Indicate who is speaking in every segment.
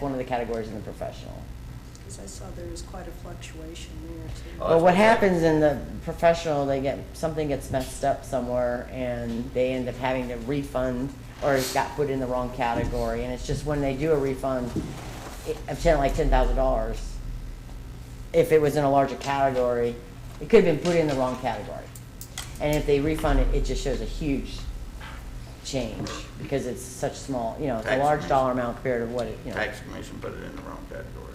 Speaker 1: one of the categories in the professional.
Speaker 2: Because I saw there was quite a fluctuation there too.
Speaker 3: Oh,
Speaker 1: Well,
Speaker 3: that's
Speaker 1: what
Speaker 3: okay.
Speaker 1: happens in the professional, they get, something gets messed up somewhere and they end up having to refund or it got put in the wrong category. And it's just when they do a refund, it- of ten, like ten thousand dollars, if it was in a larger category, it could have been put in the wrong category. And if they refund it, it just shows a huge change because it's such small, you know, it's a
Speaker 3: Tax
Speaker 1: large
Speaker 3: increase.
Speaker 1: dollar amount compared to what it, you know.
Speaker 3: Tax commission put it in the wrong category.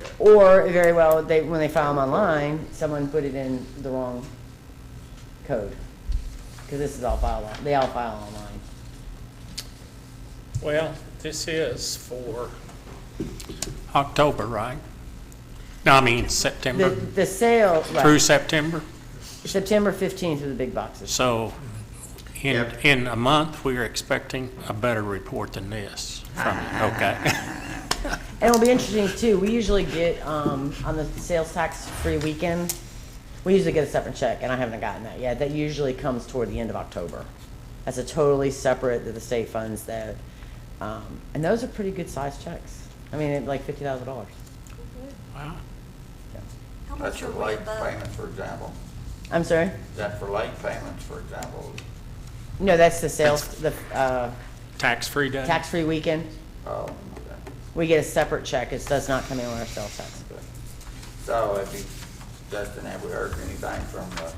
Speaker 3: Yeah.
Speaker 1: Or very well, they, when they file them online, someone put it in the wrong code. Because this is all filed, on- they all file online.
Speaker 4: Well, this is for October, right? No, I mean
Speaker 1: The,
Speaker 4: September,
Speaker 1: the sale,
Speaker 4: through
Speaker 1: right,
Speaker 4: September.
Speaker 1: September fifteenth are the big boxes.
Speaker 4: So in,
Speaker 3: Yep.
Speaker 4: in a month, we are expecting a better report than this from you, okay?
Speaker 1: And it'll be interesting too, we usually get, um, on the sales tax free weekend, we usually get a separate check, and I haven't gotten that yet. That usually comes toward the end of October. That's a totally separate, that the state funds that, um, and those are pretty good sized checks. I mean, like fifty thousand dollars.
Speaker 4: Wow.
Speaker 2: How
Speaker 3: That's
Speaker 2: much
Speaker 3: for
Speaker 2: are we
Speaker 3: late
Speaker 2: above?
Speaker 3: payments, for example.
Speaker 1: I'm sorry?
Speaker 3: Is that for late payments, for example?
Speaker 1: No, that's the sales, the uh,
Speaker 4: Tax-free day?
Speaker 1: tax-free weekend.
Speaker 3: Oh, okay.
Speaker 1: We get a separate check. It does not come in on our sales tax.
Speaker 3: okay. So if you, Justin, have we heard anything from the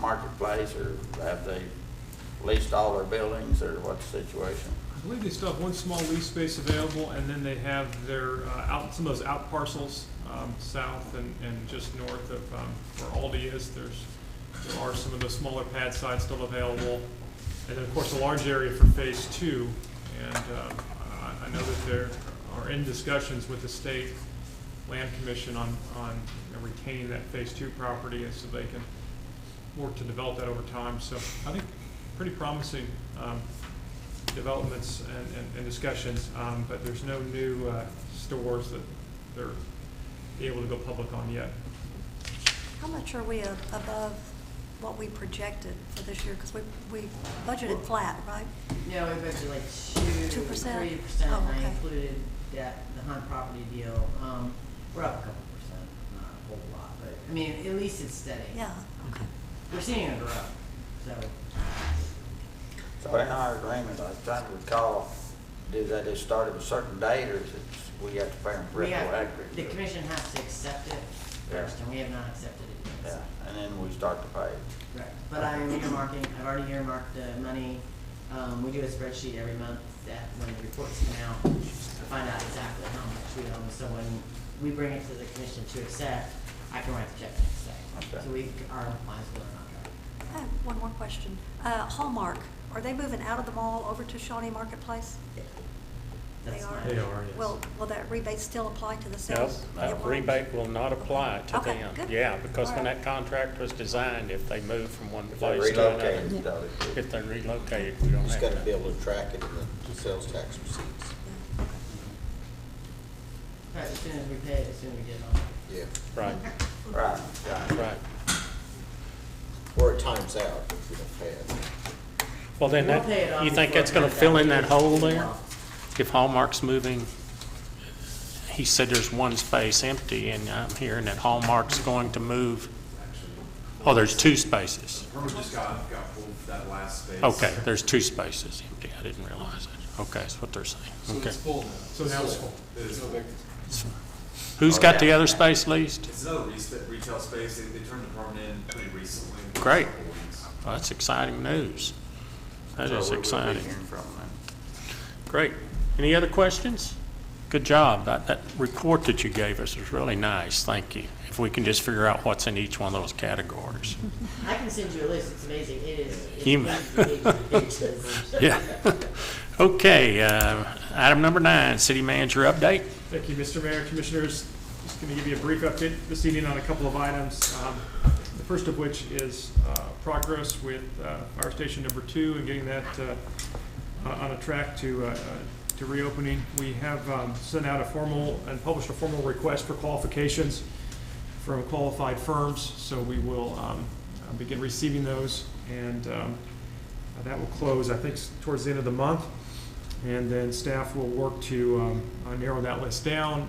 Speaker 3: marketplace, or have they leased all their buildings, or what's the situation?
Speaker 5: I believe they still have one small lease space available, and then they have their, uh, out, some of those out parcels, um, south and, and just north of, um, where Aldi is, there's, there are some of those smaller pad sites still available. And then, of course, a large area for phase two, and, um, I, I know that there are in discussions with the state land commission on, on you know, retaining that phase two property, and so they can work to develop that over time, so I think pretty promising, um, developments and, and- and discussions, um, but there's no new, uh, stores that they're able to go public on yet.
Speaker 2: How much are we a- above what we projected for this year? Because we, we budgeted flat, right?
Speaker 1: No, we budgeted like two,
Speaker 2: 2%?
Speaker 1: three percent.
Speaker 2: Oh,
Speaker 1: I
Speaker 2: okay.
Speaker 1: included that, the Hunt property deal. Um, We're up a couple percent, not a whole lot, but, I mean, at least it's steady.
Speaker 2: Yeah, okay.
Speaker 1: We're seeing it grow, so.
Speaker 3: So in our agreement, I was trying to recall, do they just start at a certain date, or is it, we have to pay them
Speaker 1: we have-
Speaker 3: retroactively?
Speaker 1: The commission has to accept it first,
Speaker 3: Yeah.
Speaker 1: and we have not accepted it yet.
Speaker 3: Yeah,
Speaker 1: so.
Speaker 3: and then we start to pay.
Speaker 1: Correct, but I am earmarking, I've already earmarked the money, um, we do a spreadsheet every month that when the reports come out, to find out exactly how much we owe, so when we bring it to the commission to accept, I can write the check next day.
Speaker 3: Okay.
Speaker 1: So we are in compliance with our contract.
Speaker 2: I have one more question. Uh, Hallmark, are they moving out of the mall over to Shawnee Marketplace?
Speaker 1: That's
Speaker 2: are.
Speaker 1: fine.
Speaker 4: They are, yes.
Speaker 2: Will, will that rebate still apply to the
Speaker 4: No,
Speaker 2: sales? It
Speaker 4: that
Speaker 2: won't?
Speaker 4: uh, rebate will not apply to
Speaker 2: Okay,
Speaker 4: them.
Speaker 2: good.
Speaker 4: Yeah, because when
Speaker 2: All right.
Speaker 4: that contract was designed, if they moved from one
Speaker 3: If they
Speaker 4: place to another,
Speaker 3: relocate, though, it-
Speaker 4: if they relocated, we don't
Speaker 6: Just
Speaker 4: have
Speaker 6: gotta be
Speaker 4: to.
Speaker 6: able to track it in the sales tax receipts.
Speaker 2: Yeah, okay.
Speaker 1: Right, as soon as we pay it, as soon as we get it on.
Speaker 6: Yeah.
Speaker 4: Right,
Speaker 3: right, right.
Speaker 4: right.
Speaker 6: Or it times out if we don't pay it.
Speaker 4: Well, then,
Speaker 1: We'll pay it
Speaker 4: that-
Speaker 1: off
Speaker 4: you think
Speaker 1: before
Speaker 4: that's going
Speaker 1: it
Speaker 4: to
Speaker 1: comes
Speaker 4: fill
Speaker 1: out.
Speaker 4: in that hole there? If Hallmark's moving, he said there's one space empty, and I'm hearing that Hallmark's going to move, oh, there's two spaces.
Speaker 7: Herman just got, got pulled that last space.
Speaker 4: Okay, there's two spaces empty, I didn't realize it. Okay, that's what they're
Speaker 7: So
Speaker 4: saying, okay.
Speaker 7: it's full now. So now it's full. It is full.
Speaker 4: Who's got the other space leased?
Speaker 7: It's another respa- retail space. They, they turned the apartment in pretty recently.
Speaker 4: Great.
Speaker 7: Couple weeks.
Speaker 4: Well, That's exciting news. That
Speaker 3: So
Speaker 4: is
Speaker 3: we will be
Speaker 4: exciting.
Speaker 3: hearing from them.
Speaker 4: Great. Any other questions? Good job. That, that report that you gave us was really nice. Thank you. If we can just figure out what's in each one of those categories.
Speaker 1: I can send you a list, it's amazing, it is. it's
Speaker 4: You-
Speaker 1: pages and pages and pages.
Speaker 4: Yeah. Okay, uh, item number nine, city manager update.
Speaker 5: Thank you, Mr. Mayor, Commissioners. Just going to give you a brief update this evening on a couple of items. Um, The first of which is uh, progress with uh, fire station number two and getting that uh, uh, on a track to, uh, uh, to reopening. We have um, sent out a formal and published a formal request for qualifications from qualified firms, so we will um, uh, begin receiving those, and um, that will close, I think, s- towards the end of the month. And then staff will work to um, uh, narrow that list down